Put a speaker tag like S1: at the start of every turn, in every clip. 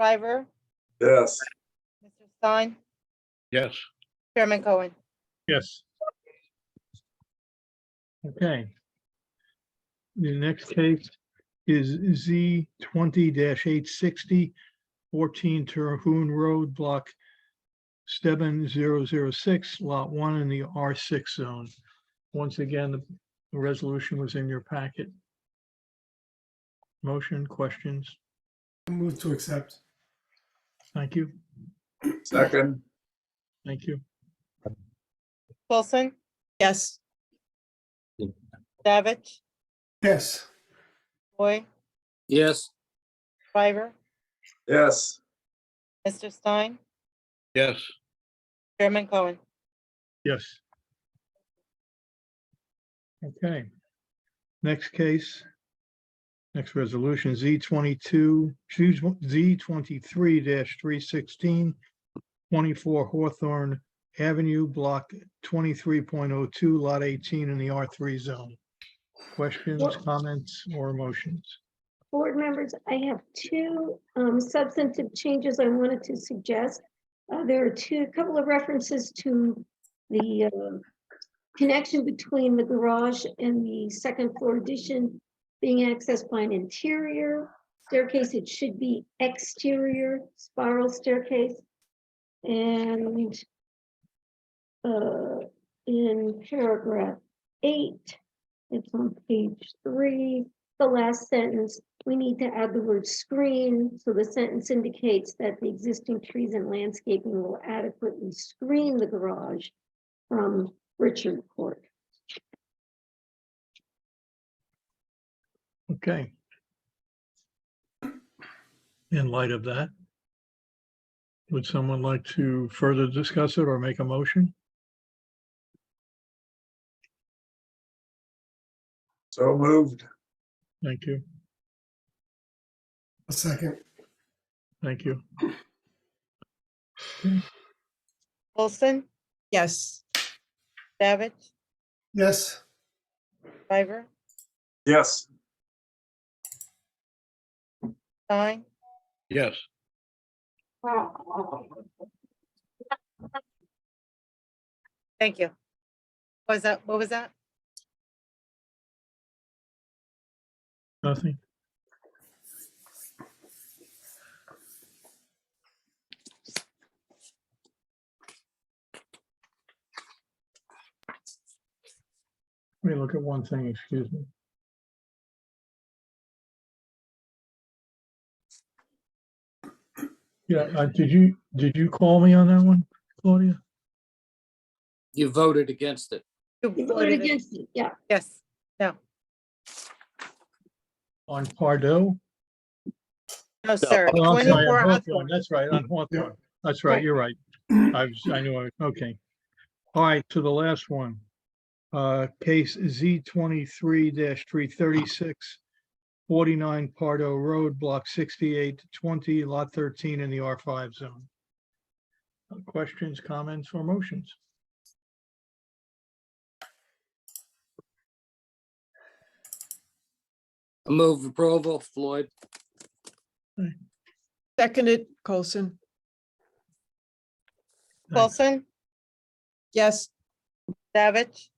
S1: Shriver,
S2: Yes.
S1: Mr. Stein,
S3: Yes.
S1: Chairman Cohen.
S4: Yes. Okay. The next case is Z twenty 860 14 Terhune Road, block seven zero zero six, lot one in the R six zone. Once again, the the resolution was in your packet. Motion, questions?
S5: Move to accept.
S4: Thank you,
S2: Second,
S4: thank you.
S1: Wilson,
S6: yes,
S1: Davich,
S5: Yes.
S1: Boy,
S3: Yes.
S1: Shriver,
S2: yes.
S1: Mr. Stein,
S3: Yes.
S1: Chairman Cohen.
S4: Yes. Okay. Next case. Next resolution, Z twenty-two, choose Z twenty-three 316 24 Hawthorne Avenue, block twenty-three point oh two, lot eighteen in the R three zone. Questions, comments, or motions?
S7: Board members, I have two um, substantive changes I wanted to suggest. Uh, There are two, a couple of references to the um, connection between the garage and the second floor addition being accessed by an interior staircase. It should be exterior spiral staircase. And uh, in paragraph eight, it's on page three, the last sentence, we need to add the word screen, so the sentence indicates that the existing trees and landscaping will adequately screen the garage from Richard Court.
S4: Okay. In light of that, would someone like to further discuss it or make a motion?
S2: So moved.
S4: Thank you,
S5: A second.
S4: thank you.
S1: Wilson,
S6: yes,
S1: Davich,
S5: Yes.
S1: Shriver,
S2: Yes.
S1: Stein,
S3: Yes.
S1: thank you. What Was that, what was that?
S4: Nothing? Let me look at one thing, excuse me. Yeah, uh, did you, did you call me on that one, Claudia?
S8: You voted against it.
S7: You voted against it, yeah.
S1: Yes,
S4: On Pardo?
S1: no, sir.
S4: Oh, I'm sorry,
S1: 24
S4: on Hawthorne,
S1: Hawthorne.
S4: That's right, on Hawthorne. That's right, you're right. I was, I knew, I- okay. All right, to the last one. Uh, case Z twenty-three 336 49 Pardo Road, block sixty-eight twenty, lot thirteen in the R five zone. Uh, Questions, comments, or motions?
S8: A move approval, Floyd.
S6: seconded Colson,
S1: Wilson,
S6: yes,
S1: Davich,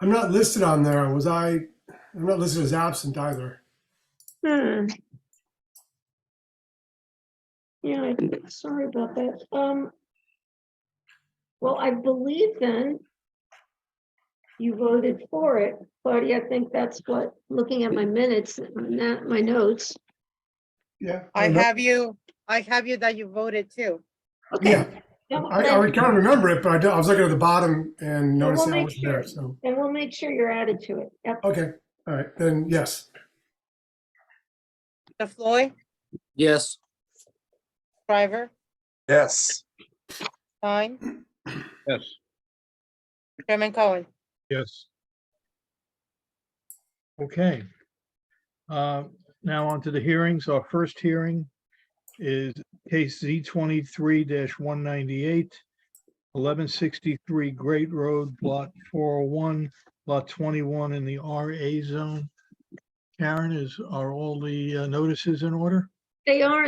S5: I'm not listed on there. Was I, I'm not listed as absent either.
S7: Hmm. Yeah, I- sorry about that. Um. Well, I believe then you voted for it, Claudia. I think that's what, looking at my minutes, not my notes.
S5: Yeah.
S1: I have you, I have you that you voted too.
S5: Yeah,
S7: Okay. Well,
S5: I, I
S7: then-
S5: would kind of remember it, but I don't- I was looking at the bottom and
S7: Well,
S5: noticed
S7: we'll
S5: I
S7: make
S5: was there,
S7: sure.
S5: so.
S7: Then we'll make sure you're added to it. Yep.
S5: Okay, all right, then, yes.
S1: DeFloy,
S8: Yes,
S1: Shriver,
S2: Yes.
S1: Stein,
S3: Yes.
S1: Chairman Cohen.
S4: Yes. Okay. Uh, Now on to the hearings. Our first hearing is case Z twenty-three 198 1163 Great Road, Block four oh one, Lot twenty-one in the RA zone. Karen, is, are all the uh, notices in order?
S7: They are